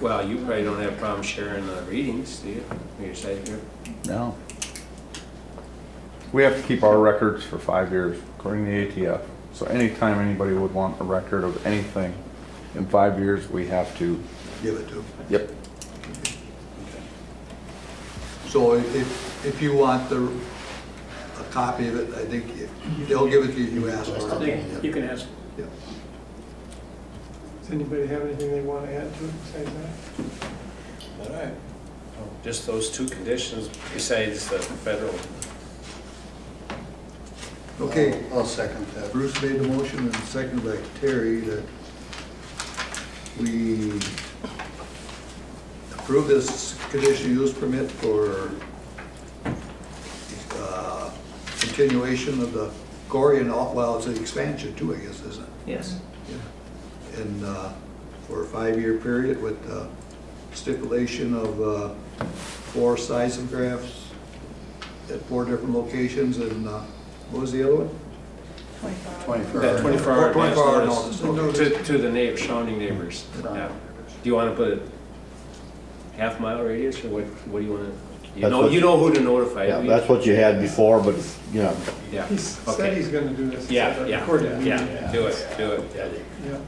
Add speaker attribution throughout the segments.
Speaker 1: Well, you probably don't have a problem sharing the readings, do you? When you're sitting here?
Speaker 2: No. We have to keep our records for five years according to the ATF. So anytime anybody would want a record of anything, in five years, we have to.
Speaker 3: give it to them.
Speaker 2: Yep.
Speaker 3: So if, if you want the, a copy of it, I think they'll give it to you, you ask
Speaker 1: I
Speaker 3: for
Speaker 1: think You
Speaker 3: it.
Speaker 1: can ask.
Speaker 3: Yeah.
Speaker 4: Does anybody have anything they want to add to it besides that?
Speaker 1: All right. Oh, Just those two conditions besides the federal.
Speaker 3: Okay,
Speaker 5: I'll second
Speaker 3: uh,
Speaker 5: that.
Speaker 3: Bruce made the motion and seconded by Terry that we approve this conditional use permit for uh, continuation of the Gorian, well, it's an expansion too, I guess, isn't it?
Speaker 1: Yes.
Speaker 3: Yeah, And uh, for a five-year period with uh, stipulation of uh, four seismographs at four different locations and uh, what was the other one?
Speaker 5: Twenty-four
Speaker 1: That
Speaker 5: hours.
Speaker 1: twenty-four hour
Speaker 3: Oh, 24 hour
Speaker 1: advance
Speaker 3: notice,
Speaker 1: notice to, to the neighbor, surrounding neighbors.
Speaker 5: Right.
Speaker 1: Yeah. Do you want to put a half mile radius or what, what do you want to? You
Speaker 6: That's
Speaker 1: know,
Speaker 6: what-
Speaker 1: you know who to notify.
Speaker 6: Yeah,
Speaker 1: do you?
Speaker 6: that's what you had before, but, you know,
Speaker 1: Yeah,
Speaker 4: He said he's
Speaker 1: okay.
Speaker 4: going to do this.
Speaker 1: Yeah, yeah,
Speaker 4: Recorded meeting.
Speaker 1: yeah, do it, do it, yeah.
Speaker 4: Yeah.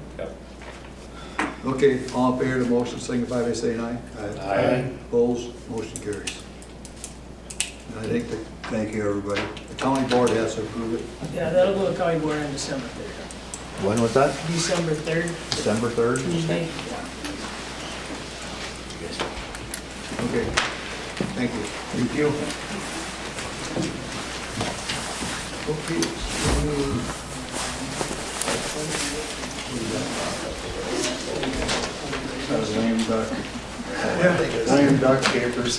Speaker 1: Yep.
Speaker 3: Okay, all in favor of the motion, signify by saying aye.
Speaker 6: Aye.
Speaker 3: Opposed, motion carries. And I think, the- thank you, everybody. The county board has to approve it.
Speaker 7: Yeah, that'll go to county board on December 3rd.
Speaker 6: when was that?
Speaker 7: December 3rd,
Speaker 6: December third?
Speaker 7: Tuesday. Yeah.
Speaker 3: Okay, thank you. Thank you. Okay.
Speaker 5: Lame duck. Lame duck capers.